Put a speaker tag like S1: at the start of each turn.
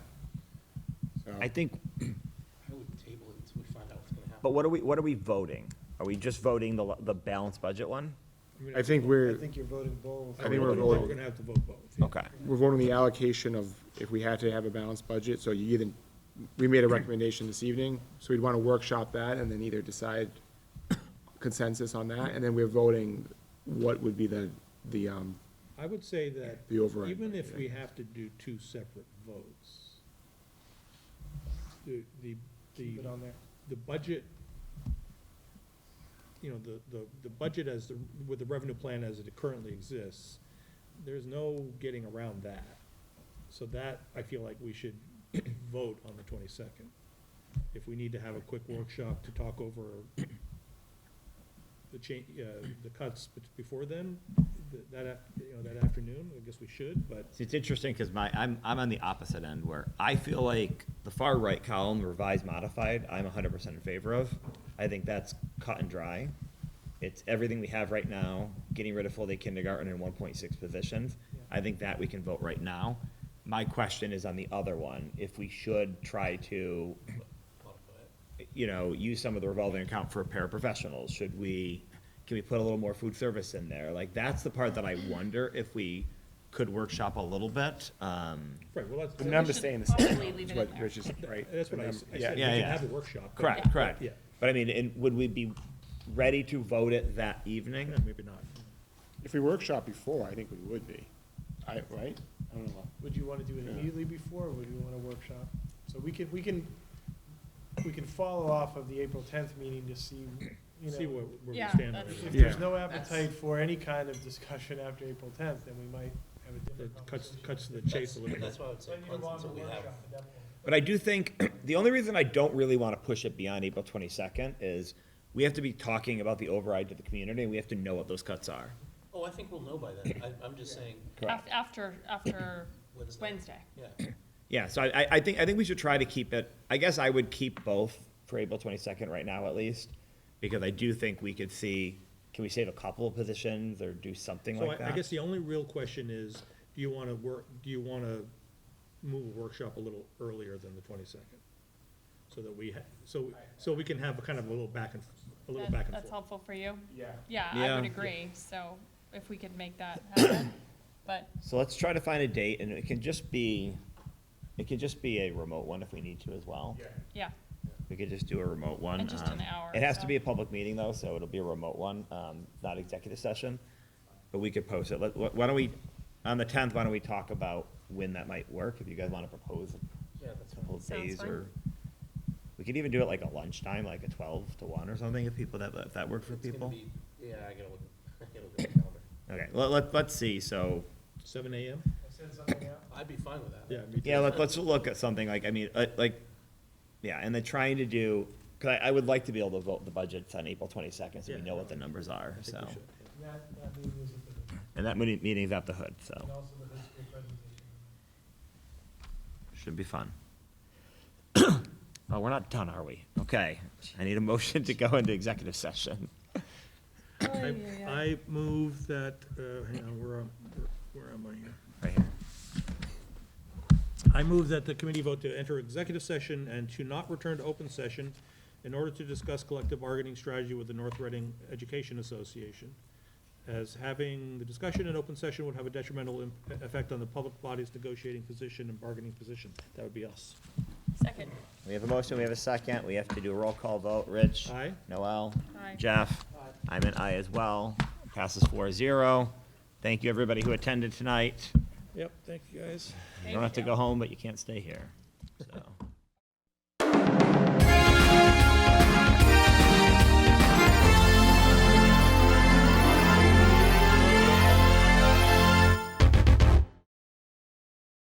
S1: So-
S2: I think,
S3: I would table it until we find out what's gonna happen.
S2: but what are we, what are we voting? Are we just voting the, the balanced budget one?
S1: I think we're-
S4: I think you're voting both.
S1: I think we're voting-
S5: gonna have to vote both. yeah.
S2: Okay.
S1: We're voting the allocation of if we had to have a balanced budget, so you either, we made a recommendation this evening, so we'd want to workshop that and then either decide consensus on that, and then we're voting what would be the, the, um,
S5: I would say that,
S1: The override
S5: even if
S1: budget.
S5: we have to do two separate votes, the, the, the,
S4: Keep it on there.
S5: the budget, you know, the, the, the budget as, the with the revenue plan as it currently exists, there's no getting around that. So that, I feel like we should vote on the twenty-second. If we need to have a quick workshop to talk over the cha, uh, the cuts be- before then, th- that, af- you know, that afternoon, I guess we should, but
S2: See, it's interesting because my, I'm, I'm on the opposite end where I feel like the far right column, revised modified, I'm hundred percent in favor of. I think that's cut and dry. It's everything we have right now, getting rid of full day kindergarten and one point six positions. I think that we can vote right now. My question is on the other one, if we should try to you know, use some of the revolving account for paraprofessionals? Should we, can we put a little more food service in there? Like, that's the part that I wonder if we could workshop a little bit. Um,
S5: Right, well, that's,
S1: the
S5: that's
S1: number's
S6: should
S1: staying the same.
S6: probably leave
S1: is
S6: it
S1: what
S6: in there.
S1: Rich is- right?
S5: what I, s- I
S1: Yeah.
S5: said, we
S2: Yeah,
S5: can
S2: yeah.
S5: have a workshop. but-
S2: Correct, correct.
S5: Yeah.
S2: But I mean, and would we be ready to vote it that evening?
S5: Yeah, maybe not.
S1: If we workshop before, I think we would be, I, right? I don't know.
S4: Would you want to do it
S1: Yeah.
S4: immediately before, or would you want a workshop? So we can, we can, we can follow off of the April tenth meeting to see, you
S5: See
S4: know,
S5: where, where we
S6: Yeah,
S5: stand on
S6: that's-
S5: it.
S4: if
S1: Yeah.
S4: there's no appetite for any kind of discussion after April tenth, then we might have a different
S5: It cuts,
S4: conversation.
S5: cuts to the chase a little bit.
S3: That's why I would say,
S4: Then you
S3: punt
S4: want a
S3: until we have,
S4: workshop at that point.
S2: But I do think, the only reason I don't really want to push it beyond April twenty-second is we have to be talking about the override to the community, and we have to know what those cuts are.
S3: oh, I think we'll know by then, I, I'm just saying,
S2: Correct.
S6: Af- After, after
S3: Wednesday.
S6: Wednesday.
S3: yeah.
S2: Yeah, so I, I- I think, I think we should try to keep it, I guess I would keep both for April twenty-second right now at least, because I do think we could see, can we save a couple of positions or do something
S5: So
S2: like
S5: I, I
S2: that?
S5: guess the only real question is, do you wanna work, do you wanna move a workshop a little earlier than the twenty-second? So that we, ha- so, so we can have a kind of a little back and, a little
S6: That-
S5: back and
S6: That's
S5: forth.
S6: helpful for you?
S1: Yeah.
S6: Yeah, I
S2: Yeah.
S6: would agree, so if we could make that happen, but,
S2: So let's try to find a date, and it can just be, it could just be a remote one if we need to as well.
S6: yeah,
S2: We could just do a remote one.
S6: And just
S2: um,
S6: an hour
S2: It
S6: or
S2: has to
S6: so.
S2: be a public meeting though, so it'll be a remote one, um, not executive session, but we could post it. Let, wh- why don't we, on the tenth, why don't we talk about when that might work, if you guys wanna propose
S3: Yeah, that's
S2: a couple of
S6: Sounds
S2: days
S6: fine.
S2: or. We could even do it like at lunchtime, like a twelve to one or something, if people, that, if that works for
S3: It's gonna
S2: people.
S3: be- Yeah, I gotta look, I gotta look at the calendar,
S2: Okay, let, let, let's see, so,
S5: Seven AM?
S4: I said something out.
S3: I'd be fine with that.
S5: Yeah, me too.
S2: yeah, let, let's look at something like, I mean, uh, like, yeah, and then trying to do, cause I, I would like to be able to vote the budgets on April twenty-second, so we
S5: Yeah.
S2: know what the numbers are,
S5: I
S2: so.
S5: think we should, yeah.
S4: That, that meeting is at the,
S2: And that meeting, meeting's at the hood,
S4: and
S2: so
S4: also the history presentation.
S2: should be fun. Oh, we're not done, are we? Okay, I need a motion to go into executive session.
S6: Oh,
S5: I, I move that, uh, hang on, where am, where am I here?
S2: Right here.
S5: I move that the committee vote to enter executive session and to not return to open session in order to discuss collective bargaining strategy with the North Reading Education Association. As having the discussion in open session would have a detrimental im- effect on the public body's negotiating position and bargaining position. That would be us.
S6: second,
S2: We have a motion, we have a second, we have to do a roll call vote. Rich?
S5: Aye.
S2: Noel?
S6: Aye.
S2: Jeff? I'm an aye as well. Passes four zero. Thank you, everybody who attended tonight.
S5: Yep, thank you, guys.
S2: You don't have to go home, but you can't stay here, so.